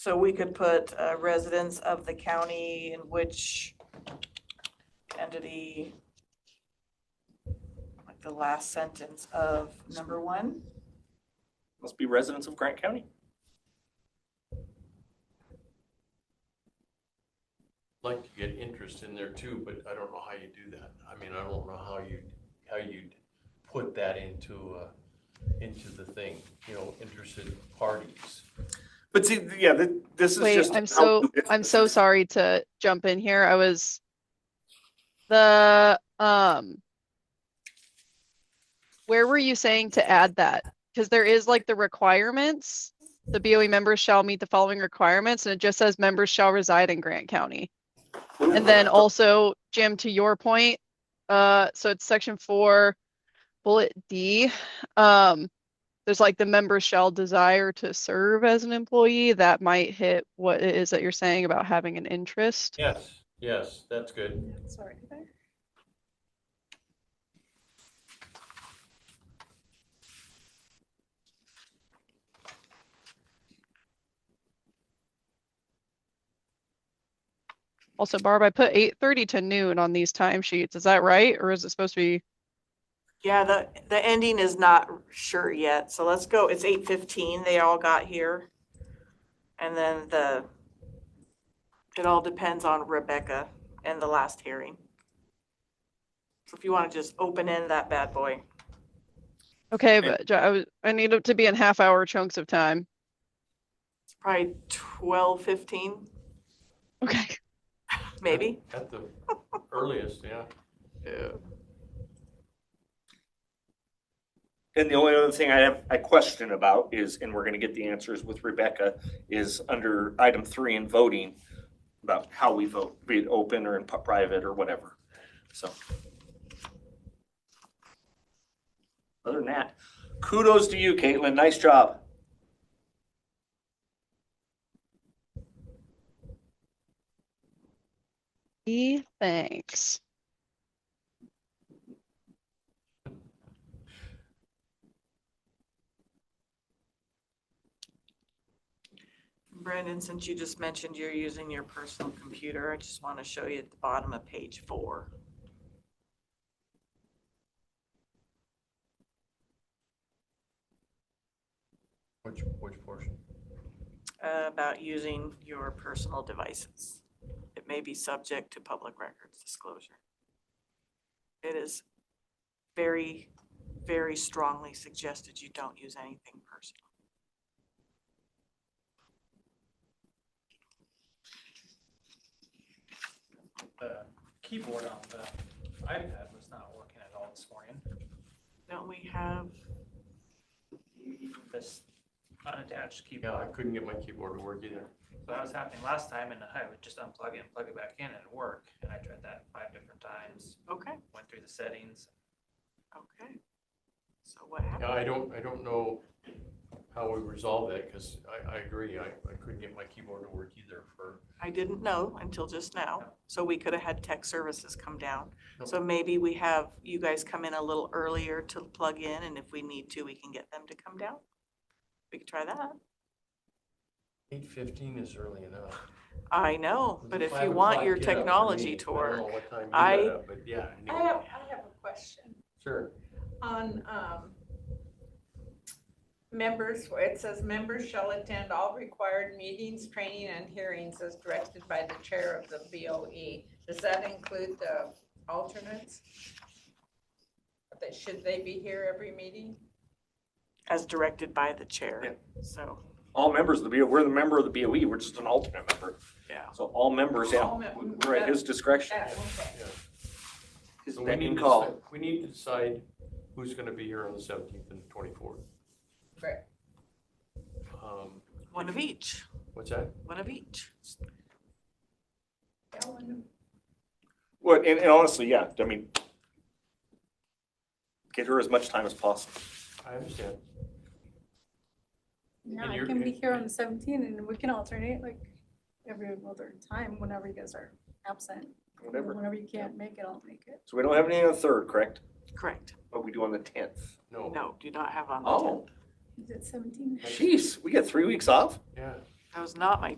So we could put uh, residents of the county in which entity, like the last sentence of number one. Must be residents of Grant County. like to get interest in there too, but I don't know how you do that. I mean, I don't know how you, how you'd put that into, uh, into the thing, you know, interested parties. But see, yeah, th- this is Wait, just. I'm so, I'm so sorry to jump in here. I was the, um, where were you saying to add that? Because there is like the requirements. The BOE members shall meet the following requirements and it just says members shall reside in Grant County. And then also, Jim, to your point, uh, so it's section four, bullet D. Um, there's like the member shall desire to serve as an employee. That might hit what it is that you're saying about having an interest. Yes, yes, that's good. Sorry. Also, Barb, I put eight thirty to noon on these timesheets. Is that right? Or is it supposed to be? Yeah, the, the ending is not sure yet, so let's go, it's eight fifteen, they all got here. And then the, it all depends on Rebecca and the last hearing. So if you want to just open end that bad boy. Okay, Okay. but ju- I was, I need it to be in half hour chunks of time. It's probably twelve fifteen, Okay. maybe. At the earliest, yeah. And the only other thing I have, I question about is, and we're gonna get the answers with Rebecca, is under item three in voting about how we vote, be it open or in pu- private or whatever. So. Other than that, kudos to you, Caitlin. Nice job. E, thanks. Brandon, since you just mentioned you're using your personal computer, I just want to show you at the bottom of page four. Which, which portion? uh, about using your personal devices. It may be subject to public records disclosure. It is very, very strongly suggested you don't use anything personal. the keyboard on the iPad was not working at all this morning. Don't we have, This unattached Yeah, I keyboard, couldn't get my keyboard to work either. so that was happening last time and I would just unplug it and plug it back in and it worked. And I tried that five different times, okay, went through the settings. okay. So what happened? Yeah, I don't, I don't know how we resolve that because I, I agree. I, I couldn't get my keyboard to work either for, I didn't know until just now, so we could have had tech services come down. No. So maybe we have you guys come in a little earlier to plug in, and if we need to, we can get them to come down. We could try that. eight fifteen is early enough. I know, but if you Five want o'clock, your get up for technology me. to I don't work, know what time you I- got up, But yeah, I anyway. have, I have a question sure. on, um, members, where it says members shall attend all required meetings, training and hearings as directed by the chair of the BOE. Does that include the alternates? That, should they be here every meeting? as directed by the Yeah. chair, so. All members of the BOE, we're the member of the BOE, we're just an alternate member. Yeah. So all members, yeah, All mem- we're at his discretion. Yeah, okay. His So we beck need and to call. decide- We need to decide who's gonna be here on the seventeenth and twenty-fourth. Right. Um, One of each, what's that? one of each. Ellen, Well, and, and honestly, yeah, I mean, get her as much time as possible. I understand. Yeah, And I you're- can be and- here on the seventeenth and we can alternate like every other time whenever you guys are absent. Whatever. Whenever you can't make it, I'll make it. So we don't have any on the third, correct? Correct. But we do on the tenth. No, No, do not have on the Oh, Is it seventeen? jeez, we get three weeks off? yeah, That was not my